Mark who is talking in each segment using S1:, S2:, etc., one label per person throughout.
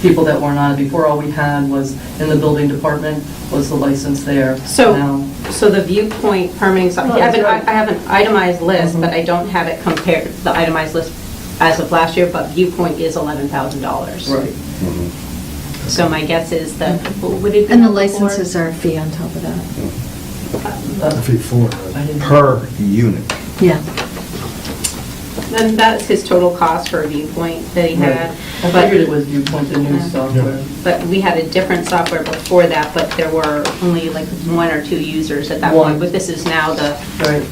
S1: people that weren't on it before, all we had was, in the building department, was the license there.
S2: So,
S1: Now-
S2: so the viewpoint permitting, so I have an, I have an itemized
S1: Mm-hmm.
S2: list, but I don't have it compared, the itemized list as of last year, but viewpoint is eleven thousand dollars.
S1: Right.
S2: So my guess is that, what would it be?
S3: Mm-hmm. And the
S2: before?
S3: licenses are a fee on top of that.
S1: Uh,
S4: Before.
S1: I didn't-
S4: Per unit.
S3: Yeah.
S2: Then that's his total cost for a viewpoint that he had.
S1: I
S2: but-
S1: figured it was viewpoint and news software.
S2: But we had a different software before that, but there were only like one or two users at that
S1: One.
S2: point. But this is now the,
S1: Right.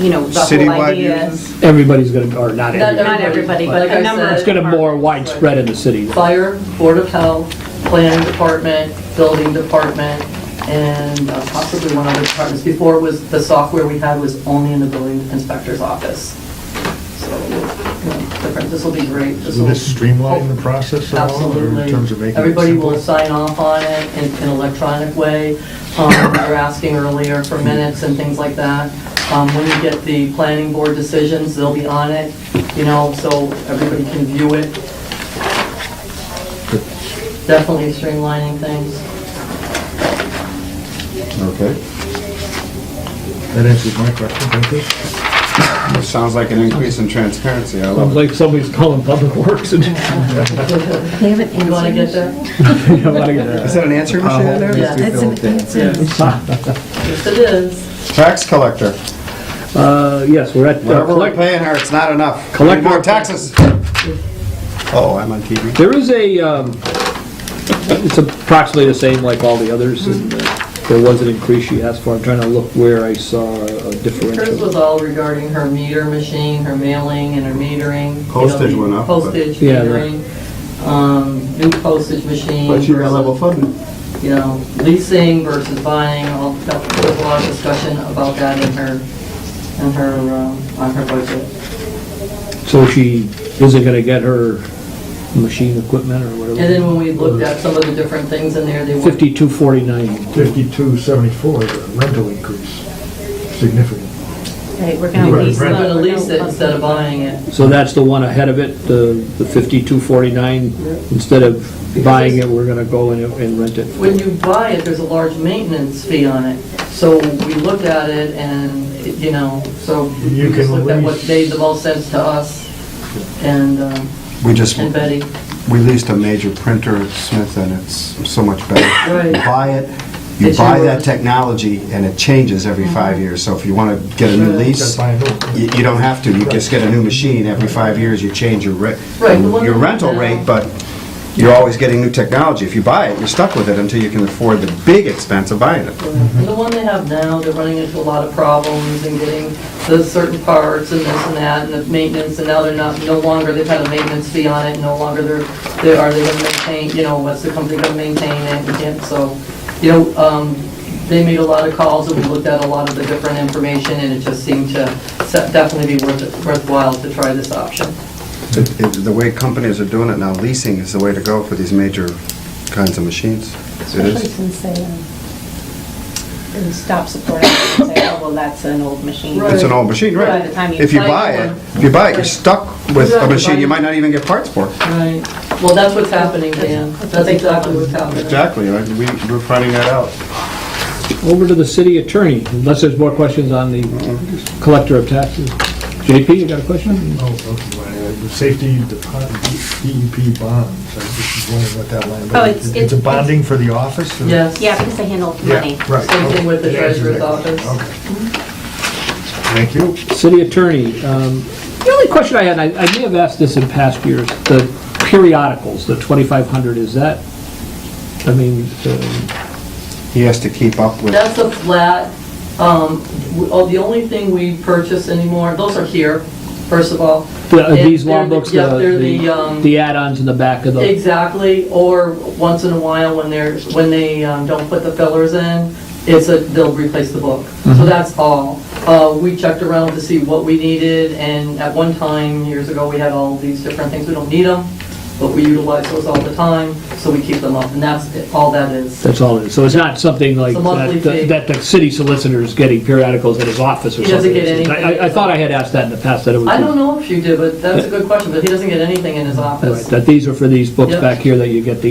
S2: you know, the whole
S4: Citywide
S2: idea.
S4: users?
S5: Everybody's gonna, or not everybody,
S2: Not everybody, but
S1: Like
S2: a
S1: I
S2: number
S1: said-
S2: of
S5: it's gonna more widespread in the city.
S1: Fire, Board of Health, Planning Department, Building Department, and uh, possibly one other department. Before it was, the software we had was only in the building inspector's office. So, you know, different, this will be great. This
S6: Will
S1: will-
S6: this streamline the process at all, or in
S1: Absolutely.
S6: terms of making it
S1: Everybody will
S6: simple?
S1: sign off on it in in electronic way. Um, You were asking earlier for minutes and things like that. Um, When you get the planning board decisions, they'll be on it, you know, so everybody can view it. Definitely streamlining things.
S4: Okay.
S6: That answers my question, thank you.
S4: It sounds like an increase in transparency. I
S7: Sounds
S4: love it.
S7: like somebody's calling Public Works and,
S3: They haven't
S1: You want to get
S3: answered.
S1: there?
S7: Yeah, like, uh,
S4: Is that an answer machine in there?
S1: Yeah.
S3: That's an answer.
S1: Yes, it is.
S4: Tax collector.
S5: Uh, yes, we're at, uh,
S4: Whatever we're
S5: collect-
S4: paying her, it's not enough. We
S5: Collect
S4: need more
S5: more.
S4: taxes. Oh, I'm on TV.
S5: there is a, um, it's approximately the same like all the others, and uh, there was an increase she asked for, I'm trying to look where I saw a
S1: Hers was
S5: differential.
S1: all regarding her meter machine, her mailing and her metering. you know,
S4: Postage
S1: the
S4: went up, but-
S1: Postage,
S5: Yeah,
S1: metering, um, new postage machine. versus,
S4: funded.
S1: You know, leasing versus buying, all, that- there was a lot of discussion about that in her, in her, um, on her budget.
S5: So she isn't gonna get her machine equipment or
S1: And then
S5: whatever.
S1: when we looked at some of the different things in there, they were.
S5: Fifty-two forty-nine.
S6: Fifty-two seventy-four, the rental increase, significant.
S2: Right, we're gonna
S6: Right,
S2: lease
S1: We're
S2: them.
S1: gonna
S2: We're
S1: lease it
S2: gonna-
S1: instead of buying it.
S5: So that's the one ahead of it, the the 5249. Instead of buying it, we're gonna go and and rent it.
S1: When you buy it, there's a large maintenance fee on it. So we looked at it and, you know, so
S6: You
S1: we just
S6: can
S1: looked at what
S6: lease-
S1: made the most sense to us and, um,
S4: We just,
S1: and
S4: we
S1: Betty.
S4: leased a major printer at Smith and it's so much better. You
S1: Right.
S4: buy it, you
S1: It's
S4: buy
S1: your-
S4: that technology and it changes every five years. So if you want to get a new
S1: Sure.
S4: lease, you you don't have to. You just get a new machine every five years, you change your rent,
S1: Right, the one
S4: your
S1: that-
S4: rental rate, but you're always getting new technology. If you buy it, you're stuck with it until you can afford the big expense of buying it.
S1: And the one they have now, they're running into a lot of problems and getting the certain parts and this and that and the maintenance, and now they're not, no longer, they've had a maintenance fee on it, no longer they're, they are they gonna maintain, you know, what's the company gonna maintain it, and can't- so, you know, um, they made a lot of calls, and we looked at a lot of the different information, and it just seemed to se- definitely be worth, it- worthwhile to try this option.
S4: It- it- The way companies are doing it now, leasing is the way to go for these major kinds of machines. It
S2: Especially
S4: is.
S2: since they, um, they stop supporting it and say, oh, well, that's an old machine.
S1: Right.
S4: It's an old machine,
S2: By
S4: right?
S2: the time you
S4: If you
S2: buy
S4: buy
S2: one.
S4: it, if you buy it, you're stuck with a machine you might not even get parts for.
S1: Right, well, that's what's happening, Dan, that's exactly what's happening.
S4: Exactly, right? we, we're finding that out.
S5: Over to the city attorney, unless there's more questions on the collector of taxes. JP, you got a question?
S6: Oh, okay, well, uh, the Safety department, DEP bonds, I was just wondering what that line,
S2: Oh,
S6: but
S2: it's-
S6: it's it's a
S2: it's-
S6: bonding for the office? or-
S1: Yes.
S2: Yeah, because they handle
S6: Yeah,
S2: money.
S6: right.
S1: Same thing with the
S6: It answers
S1: treasurer's
S6: that question.
S1: office.
S6: Okay. Thank you.
S5: City attorney, um, the only question I had, and I I may have asked this in past years, the periodicals, the 2,500, is that, I mean, uh,
S4: He has to keep up with,
S1: That's a flat, um, w- oh, the only thing we purchase anymore, those are here, first of all.
S5: the- are these
S1: They're
S5: law
S1: the-
S5: books,
S1: Yep,
S5: the-
S1: they're the, um,
S5: the the add-ons in the back of the,
S1: Exactly, or once in a while when they're, when they um, don't put the fillers in, it's a, they'll replace the book. So that's all. Uh, We checked around to see what we needed, and at one time, years ago, we had all these different things, we don't need them, but we utilize those all the time, so we keep them up, and that's it- all that is.
S5: that's all it is. So it's not something like
S1: It's a monthly
S5: that- that
S1: fee.
S5: that the city solicitor is getting periodicals at his office or
S1: He doesn't
S5: something.
S1: get anything.
S5: I- I I thought I had asked that in the past, that it was...
S1: I don't know if you did, but that's a good question, but he doesn't get anything in his office.
S5: That these are for these books
S1: Yep.
S5: back here that you get the